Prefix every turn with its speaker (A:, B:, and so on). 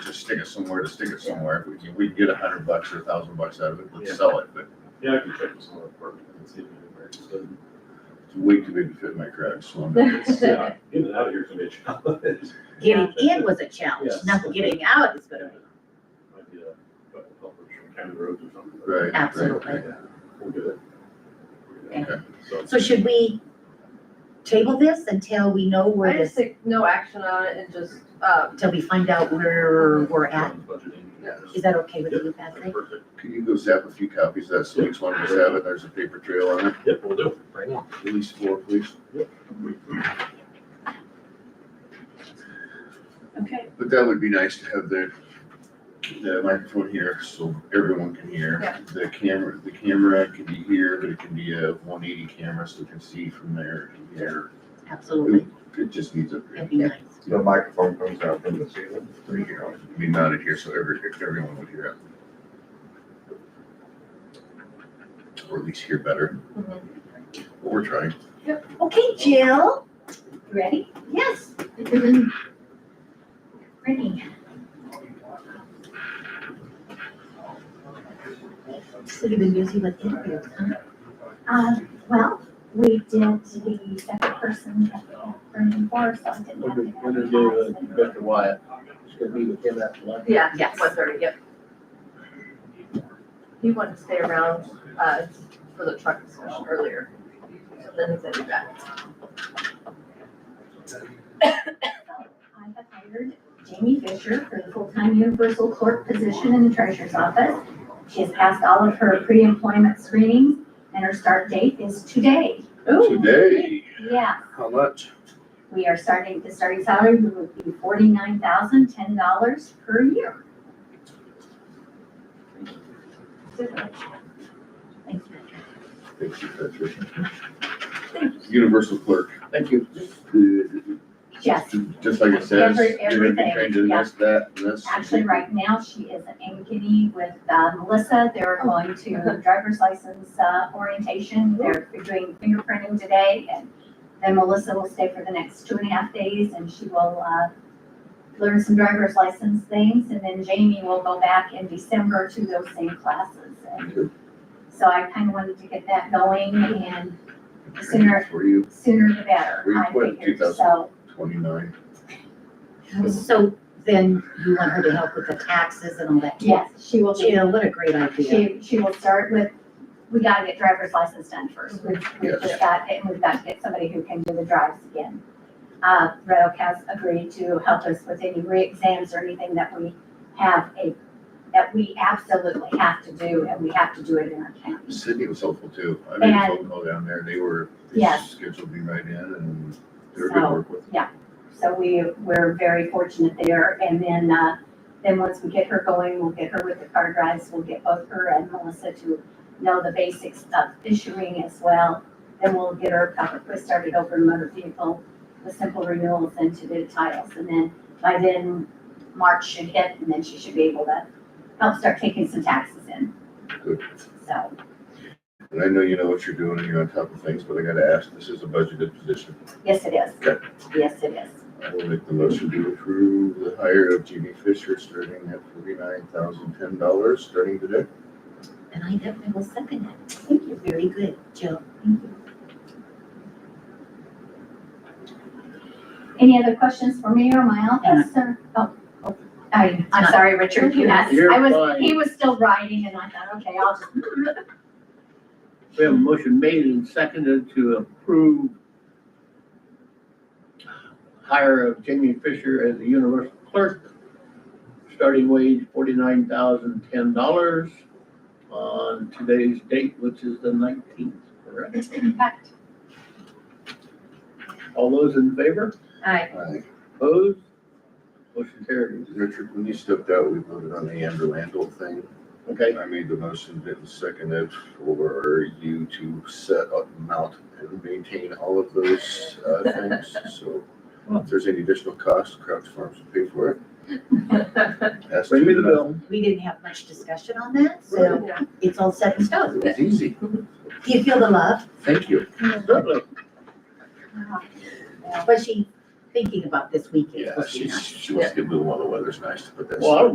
A: stick it somewhere to stick it somewhere. If we can, we can get a hundred bucks or a thousand bucks out of it,
B: Yeah.
A: let's sell it, but
B: Yeah, I can check with some of the department and see if anybody interested.
A: it's way too big to fit in my cracks, so I'm.
B: Yeah, in and out of here can be a challenge.
C: Getting in was a challenge,
B: Yes.
C: now getting out is gonna be,
B: Might be a couple helpers from county roads or something.
A: Right.
C: absolutely.
B: We'll get it. We'll get it. So,
C: So should we table this until we know where
D: I just
C: this,
D: think no action on it and just, um,
C: until we find out where we're at?
B: budgeting.
C: Is that okay with
B: Yep,
C: you,
B: that's
C: Patrick?
B: Perfect.
A: Can you go zap a few copies of that, so each one of us have it, there's a paper trail on it,
B: Yep, we'll do it right now.
A: at least four, please.
C: Okay.
A: But that would be nice to have the, the microphone here, so everyone can hear.
D: Yeah.
A: The camera, the camera can be here, but it can be a one eighty camera, so we can see from there to here.
C: Absolutely,
A: It just needs a,
C: that'd be nice.
E: The microphone comes out from the ceiling.
A: three here, I mean, mounted here, so every, everyone would hear it. Or at least hear better.
F: Mm-hmm.
D: Mhm.
A: What we're trying.
C: Okay, Jill, ready? Yes. Ready. So you've been busy with interviews, huh?
F: Um, well, we did the second person that we had burning for, so I didn't have
G: We're
F: to.
G: gonna, we're
F: have
G: gonna
F: an
G: do with
F: announcement.
G: Mr. Wyatt, just gonna meet with him after lunch.
D: yeah,
C: Yes.
D: one thirty, yep. He wanted to stay around, uh, for the truck discussion earlier, so then he said he'd be back.
F: So I have hired Jamie Fisher for the full-time universal clerk position in the treasurer's office. She has passed all of her pre-employment screenings and her start date is today.
A: Today,
F: Yeah,
A: how much?
F: we are starting, the starting salary would be forty-nine thousand, ten dollars per year.
C: Thanks, Patrick.
A: Thank you, Patricia. Universal clerk.
G: Thank you.
F: Yes,
A: Just like it says,
F: Every-
A: you're gonna be
F: everything,
A: trained in
F: yeah.
A: this, that, and this.
F: actually, right now, she is in Ankeny with uh, Melissa. They're going to driver's license uh, orientation. They're doing fingerprinting today. And then Melissa will stay for the next two and a half days and she will uh, learn some driver's license things. And then Jamie will go back in December to those same classes. And so I kind of wanted to get that going and sooner-
A: For you,
F: sooner the better,
A: We
F: I
A: put
F: figured. So,
A: twenty-nine.
C: So then you want her to help with the taxes and all that?
F: yes, she will be
C: Jill, what a great idea.
F: She, she will start with, we gotta get driver's license done first. We've, we've
A: Yes.
F: just got, and we've got to get somebody who can do the drives again. Uh, Red Oak has agreed to help us with any re-exams or anything that we have a, that we absolutely have to do, and we have to do it in our county.
A: Sydney was helpful too. I made a
F: And-
A: phone call down there. They were, they
F: Yes.
A: scheduled me right in and they were good to
F: So-
A: work with.
F: So we, we're very fortunate there, and then, uh, then once we get her going, we'll get her with the car drives, we'll get both her and Melissa to know the basics of issuing as well. Then we'll get her proper quick started over in motor vehicle, with simple renewals and to do the titles, and then by then, March should hit, and then she should be able to help start taking some taxes in.
A: Good.
F: So,
A: And I know you know what you're doing and you're on top of things, but I gotta ask, this is a budgeted position.
F: yes, it is.
A: Good.
F: Yes, it is.
A: I will make the motion to approve the hire of Jimmy Fisher starting at forty-nine thousand ten dollars starting today.
C: And I definitely will second that. Thank you. Very good, Jill. Thank you.
F: Any other questions for me or my office or? oh, oh, I, I'm sorry, Richard, you asked.
G: You're
F: I was,
G: fine.
F: he was still writing and I thought, okay, I'll just.
G: We have a motion made and seconded to approve hire of Jamie Fisher as the universal clerk, starting wage forty-nine thousand ten dollars on today's date, which is the nineteenth, correct? All those in favor?
D: Aye.
A: Aye.
G: Opposed? Motion carries.
A: Richard, when you stepped out, we voted on the Andrew Landell thing.
G: Okay,
A: I made the motion, Vinton seconded for you to set up, mount, and maintain all of those, uh, things, so if there's any additional cost, Crouch Farms will pay for it. Ask
G: bring me the
A: to-
G: bill.
C: We didn't have much discussion on that, so
D: Yeah.
C: it's all set in stone.
A: It was easy,
C: Do you feel the love?
A: thank you.
G: Certainly.
C: Was she thinking about this weekend?
A: Yeah,
C: Was she
A: she,
C: not?
A: she wants to get moving while the weather's nice to put that.
G: Well, I